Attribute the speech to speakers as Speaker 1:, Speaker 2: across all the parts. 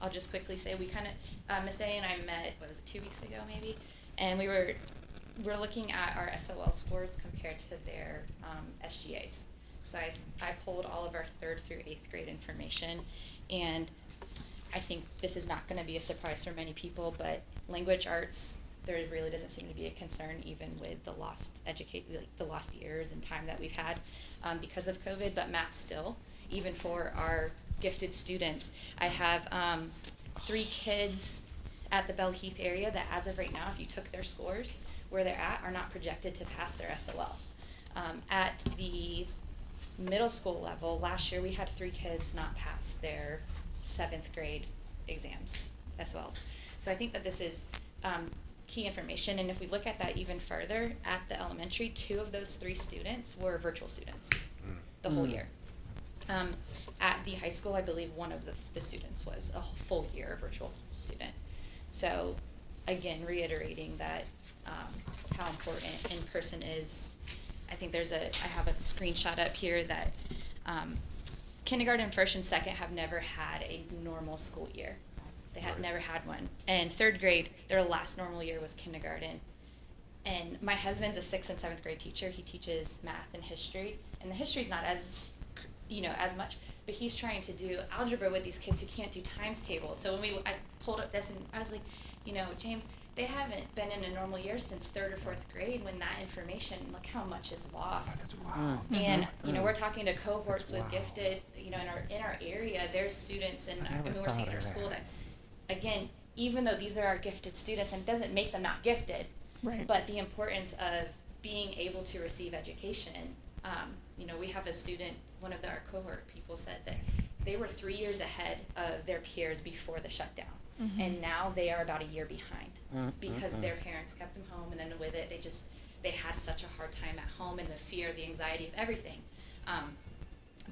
Speaker 1: I'll just quickly say we kind of uh, Miss A and I met what was it two weeks ago maybe, and we were we're looking at our SOL scores compared to their um, SGAs. So I, s- I pulled all of our third through eighth grade information, and I think this is not going to be a surprise for many people, but language arts there really doesn't seem to be a concern even with the lost educate like the lost years and time that we've had um, because of COVID. But math still, even for our gifted students, I have um, three kids at the Bell Heath area that, as of right now, if you took their scores where they're at, are not projected to pass their SOL. Um, at the middle school level, last year we had three kids not pass their seventh grade exams, SOLs. So I think that this is um, key information. And if we look at that even further, at the elementary, two of those three students were virtual students the whole
Speaker 2: Mm.
Speaker 1: year. Um, at the high school, I believe one of the, the students was a wh- full year virtual s- student. So, again, reiterating that um, how important in person is. I think there's a, I have a screenshot up here that um, kindergarten, first, and second have never had a normal school year. They had
Speaker 3: Right.
Speaker 1: never had one. And third grade, their last normal year was kindergarten. And my husband's a sixth and seventh grade teacher. He teaches math and history, and the history's not as, cr- you know, as much. But he's trying to do algebra with these kids who can't do times tables. So when we, I pulled up this, and I was like, you know, James, they haven't been in a normal year since third or fourth grade. When that information, look how much is
Speaker 2: Mm-hmm.
Speaker 1: lost.
Speaker 2: wow.
Speaker 1: And
Speaker 4: Mhm.
Speaker 1: you
Speaker 3: Mm-hmm.
Speaker 1: know,
Speaker 2: Mm.
Speaker 1: we're talking to cohorts with
Speaker 2: Wow.
Speaker 1: gifted, you know, in our in our area, there's students, and
Speaker 2: I
Speaker 1: I
Speaker 2: never
Speaker 1: mean, we're
Speaker 2: thought
Speaker 1: seeing
Speaker 2: of
Speaker 1: at our school
Speaker 2: that.
Speaker 1: that, again, even though these are our gifted students, and it doesn't make them not gifted,
Speaker 4: Right.
Speaker 1: but the importance of being able to receive education. Um, you know, we have a student, one of the- our cohort people said that they were three years ahead of their peers before the shutdown,
Speaker 4: Mhm.
Speaker 1: and now they are about a year behind
Speaker 2: Mm,
Speaker 1: because
Speaker 2: mm, mm.
Speaker 1: their parents kept them home, and then with it, they just they had such a hard time at home and the fear, the anxiety of everything. Um,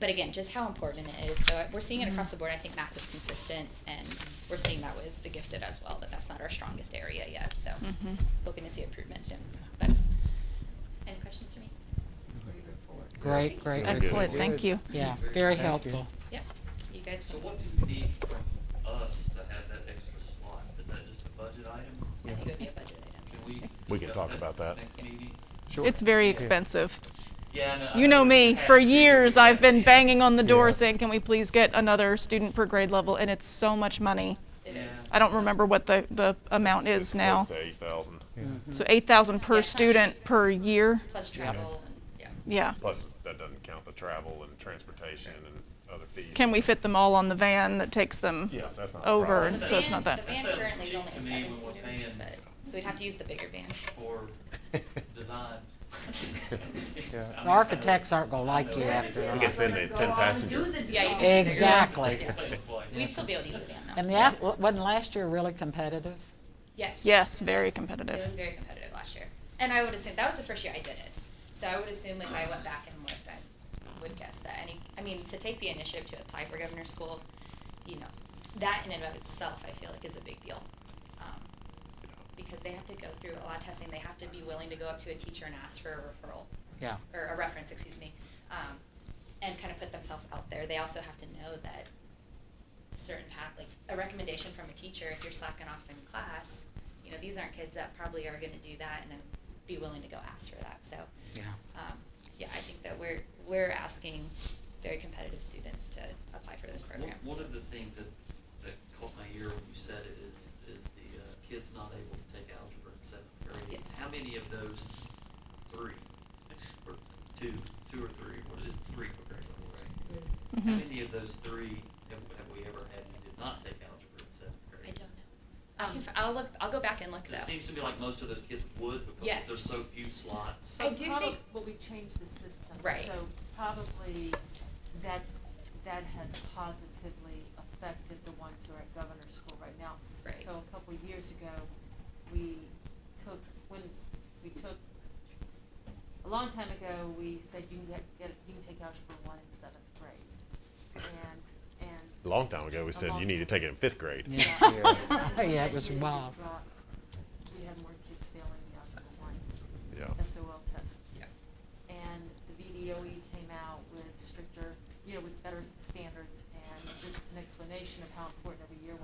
Speaker 1: but again, just how important it is. So uh, we're seeing it across the board. I think math is consistent, and we're seeing that with the gifted as well. That that's not our strongest area yet. So
Speaker 4: Mhm.
Speaker 1: looking to see improvement soon. But any questions for me?
Speaker 2: Great, great.
Speaker 3: Very good.
Speaker 4: Excellent, thank you.
Speaker 2: Yeah,
Speaker 5: Thank you.
Speaker 2: very helpful.
Speaker 1: Yep. You guys.
Speaker 6: So what do you need from us to have that extra slot? Is that just a budget item?
Speaker 1: I think it would be a budget item.
Speaker 6: Can
Speaker 1: yes.
Speaker 6: we?
Speaker 3: We can
Speaker 6: discuss
Speaker 3: talk about that.
Speaker 6: Next
Speaker 1: Yeah.
Speaker 6: meeting?
Speaker 5: Sure.
Speaker 4: It's very
Speaker 5: Yeah.
Speaker 4: expensive.
Speaker 6: Yeah, I I
Speaker 4: You know me, for
Speaker 6: Past years,
Speaker 4: years,
Speaker 6: we
Speaker 4: I've been
Speaker 6: haven't
Speaker 4: banging on the door
Speaker 5: Yeah.
Speaker 4: saying, can we please get another student per grade level? And it's so much money.
Speaker 1: It
Speaker 6: Yeah.
Speaker 1: is.
Speaker 4: I don't remember what the, the amount is now.
Speaker 3: Mm-hmm. Close to eight thousand,
Speaker 2: Mm-hmm.
Speaker 4: So eight thousand
Speaker 1: Yeah,
Speaker 4: per
Speaker 1: it's not cheap.
Speaker 4: student per year,
Speaker 1: Plus travel and yeah.
Speaker 4: yeah.
Speaker 3: plus that doesn't count the travel and transportation and other fees.
Speaker 4: Can we fit them all on the van that takes them?
Speaker 3: Yes, that's not a
Speaker 4: over
Speaker 3: problem.
Speaker 4: and so it's not
Speaker 1: van-
Speaker 4: that-
Speaker 1: The van
Speaker 6: That sounds
Speaker 1: currently is
Speaker 6: cheap
Speaker 1: only a
Speaker 6: to me when
Speaker 1: seven
Speaker 6: we're
Speaker 1: seater,
Speaker 6: paying-
Speaker 1: but, so we'd have to use the bigger van.
Speaker 6: For designs.
Speaker 5: Yeah.
Speaker 6: I mean,
Speaker 2: Architects aren't gonna
Speaker 6: I
Speaker 2: like
Speaker 6: know
Speaker 2: you
Speaker 6: it's
Speaker 2: after
Speaker 3: I
Speaker 2: all.
Speaker 3: guess then they ten passenger.
Speaker 1: Yeah, you
Speaker 2: just- Exactly.
Speaker 6: a big place.
Speaker 1: We'd still be able to use the van though.
Speaker 2: And that, wasn't last year really competitive?
Speaker 1: Yes.
Speaker 4: Yes, very
Speaker 1: Yes.
Speaker 4: competitive.
Speaker 1: It was very competitive last year. And I would assume, that was the first year I did it. So I would assume if I went back and looked, I would guess that any, I mean, to take the initiative to apply for governor's school, you know, that in and of itself, I feel like is a big deal. Um, Because they have to go through a lot of testing. They have to be willing to go up to a teacher and ask for a referral.
Speaker 2: Yeah.
Speaker 1: or a reference, excuse me, um, and kind of put themselves out there. They also have to know that a certain path, like a recommendation from a teacher, if you're slacking off in class, you know, these aren't kids that probably are going to do that and then be willing to go ask for that. So,
Speaker 2: Yeah.
Speaker 1: um, yeah, I think that we're we're asking very competitive students to apply for this program.
Speaker 6: One, one of the things that, that caught my ear when you said it is, is the uh, kids not able to take algebra in seventh grade.
Speaker 1: Yes.
Speaker 6: How many of those three, or two, two or three, what is three per grade level, right?
Speaker 1: Mm-hmm.
Speaker 6: How
Speaker 4: Mhm.
Speaker 6: many of those three have, have we ever had who did not take algebra in seventh
Speaker 1: I
Speaker 6: grade?
Speaker 1: don't know. I can, f- I'll look. I'll go back and look
Speaker 6: 'Cause
Speaker 1: though.
Speaker 6: Um, It seems to me like most of those kids would because
Speaker 1: Yes.
Speaker 6: there's so few slots.
Speaker 1: I do
Speaker 7: Probab-
Speaker 1: think-
Speaker 7: But we changed the system.
Speaker 1: Right.
Speaker 7: So probably that's, that has positively affected the ones who are at governor's school right now.
Speaker 1: Right.
Speaker 7: So a couple of years ago, we took, when, we took, a long time ago, we said you can get, get, you can take algebra one in seventh grade. And, and
Speaker 3: A long time ago, we
Speaker 7: A
Speaker 3: said
Speaker 7: long
Speaker 3: you need to
Speaker 7: time.
Speaker 3: take it in fifth grade.
Speaker 2: Yeah. Yeah, it was
Speaker 7: Years of
Speaker 2: wild.
Speaker 7: drop. E